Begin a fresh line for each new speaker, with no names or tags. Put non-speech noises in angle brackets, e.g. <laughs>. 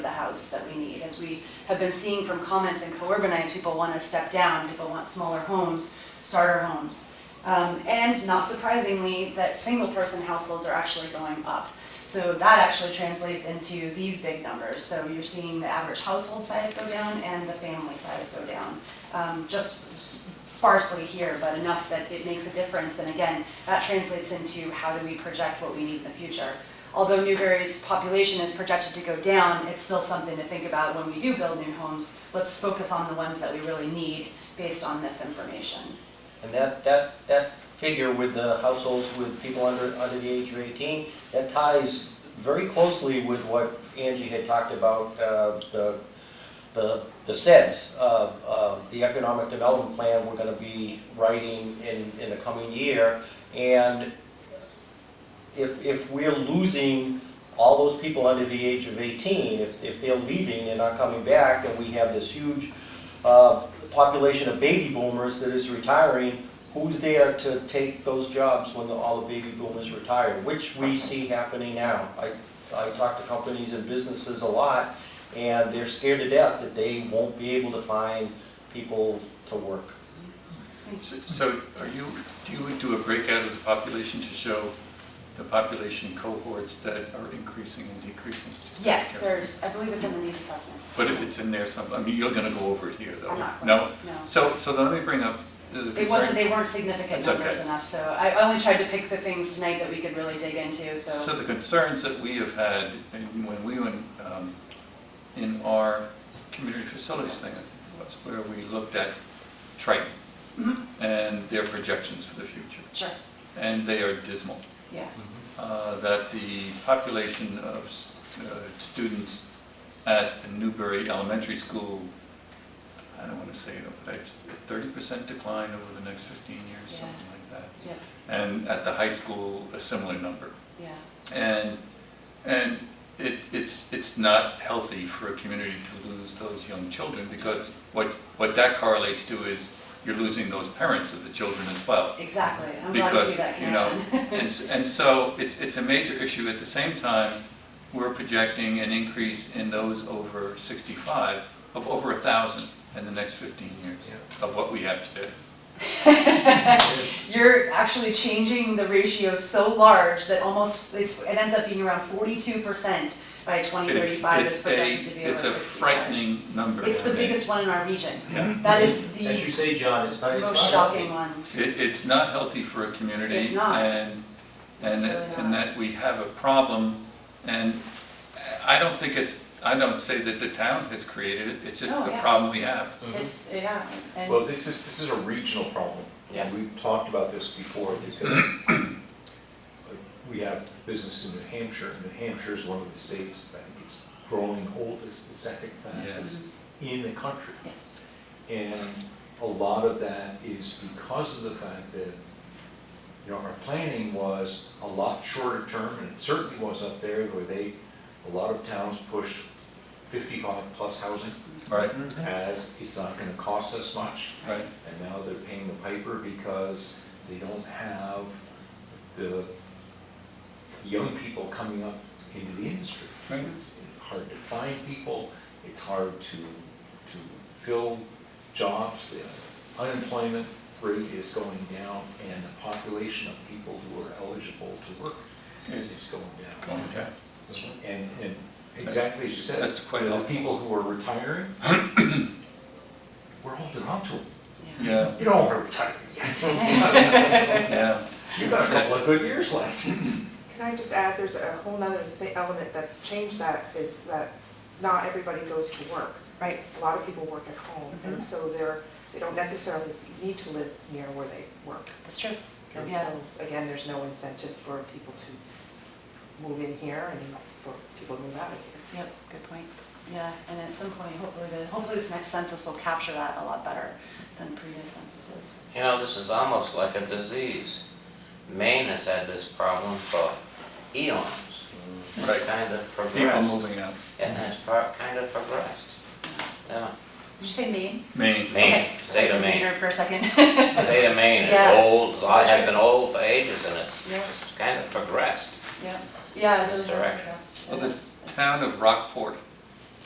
house that we need. As we have been seeing from comments in co-urbanites, people want to step down, people want smaller homes, starter homes. Um, and not surprisingly, that single-person households are actually going up. So that actually translates into these big numbers. So you're seeing the average household size go down and the family size go down. Um, just s- sparsely here, but enough that it makes a difference. And again, that translates into how do we project what we need in the future. Although Newberry's population is projected to go down, it's still something to think about when we do build new homes. Let's focus on the ones that we really need based on this information.
And that, that, that figure with the households with people under, under the age of 18, that ties very closely with what Angie had talked about, uh, the, the, the SEDS, uh, uh, the economic development plan we're gonna be writing in, in the coming year. And if, if we're losing all those people under the age of 18, if, if they're leaving and not coming back, and we have this huge uh, population of baby boomers that is retiring, who's there to take those jobs when the- all the baby boomers retire, which we see happening now. I, I talk to companies and businesses a lot, and they're scared to death that they won't be able to find people to work.
So- So are you, do you do a breakout of the population to show the population cohorts that are increasing and decreasing? Just out of
Yes,
curiosity.
there's, I believe it's in the needs assessment.
But if it's in there some, I mean, you're gonna go over it here, though.
I'm not.
No?
close, No.
So, so let me bring up the the
It wasn't,
concern.
they weren't significant
That's okay.
numbers enough, so I only tried to pick the things tonight that we could really dig into,
So the concerns that we have had in- when we went um, in our community facilities thing, I think it was, where we looked at Triton
Mhm.
and their projections for the future,
Sure,
and they are dismal.
yeah.
uh, that the population of s- uh, students at the Newbury Elementary School, I don't want to say it, but it's a 30% decline over the next 15 years,
Yeah.
something like that.
Yeah.
And at the high school, a similar number.
Yeah,
And, and it, it's, it's not healthy for a community to lose those young children because what, what that correlates to is you're losing those parents of the children as well.
exactly. I'm glad to see
Because,
that
you know,
connection.
and, s- and so it's, it's a major issue. At the same time, we're projecting an increase in those over 65 of over a 1,000 in the next 15 years of what we have today.
<laughs> You're actually changing the ratio so large that almost, it's, it ends up being around forty-two percent by twenty
It's-
thirty-five
it's
is projected to
a-
be over
It's a
sixty-five.
frightening number.
It's the biggest one in our region.
Yeah.
That is
As you
the
say, John, it's not, it's not
most
healthy.
shocking one.
It, it's not healthy for a community.
It's not.
And,
It's uh,
and,
really
that- and
not.
that we have a problem. And I don't think it's, I don't say that the town has created it. It's just
Oh,
a
yeah.
problem we have.
It's, yeah,
Well,
and,
this is, this is a regional problem.
Yes.
We've talked about this before because we have business in New Hampshire. and New Hampshire is one of the states, I think it's growing oldest, the second fastest in the country.
yes,
And a lot of that is because of the fact that, you know, our planning was a lot shorter term, and it certainly was up there where they, a lot of towns push fifty-five plus housing
Mm-hmm.
Right,
as it's not gonna cost us much.
right.
And now they're paying the piper because they don't have the young people coming up into the industry.
Right.
It's Hard to find people, it's hard to, to fill jobs, the unemployment rate is going down, and the population of people who are eligible to work
Is
is going down.
going down.
it's true.
And, and exactly as you said,
That's quite
the
helpful.
people who are retiring, <coughs> we're holding on to them.
Yeah,
You don't want to retire yet. <laughs>
Yeah.
yeah.
You've got a couple of good years left.
Can I just add, there's a whole nother thi- element that's changed that is that not everybody goes to work.
Right,
A lot of people work at home,
Mhm.
and so they're, they don't necessarily need to live near where they work.
that's true.
And
Yeah.
so, again, there's no incentive for people to move in here and for people to move out of here.
Yep, good point. Yeah, and at some point, hopefully, the, hopefully this next census will capture that a lot better than previous censuses.
You know, this is almost like a disease. Maine has had this problem for eons.
Right.
It's kind of
People
progressed.
moving out.
And it's pro- kind of progressed. Yeah.
Did you say Maine?
Maine.
Maine,
Okay, I
state
said
of Maine.
Maynard for a second. <laughs>
State of Maine
Yeah.
is old, it's all-
That's
has
true.
been old for ages and it's
Yeah.
it's kind of progressed.
Yeah, yeah, it really was
Direct.
progressed.
Well,
It
the
was- it's-
town of Rockport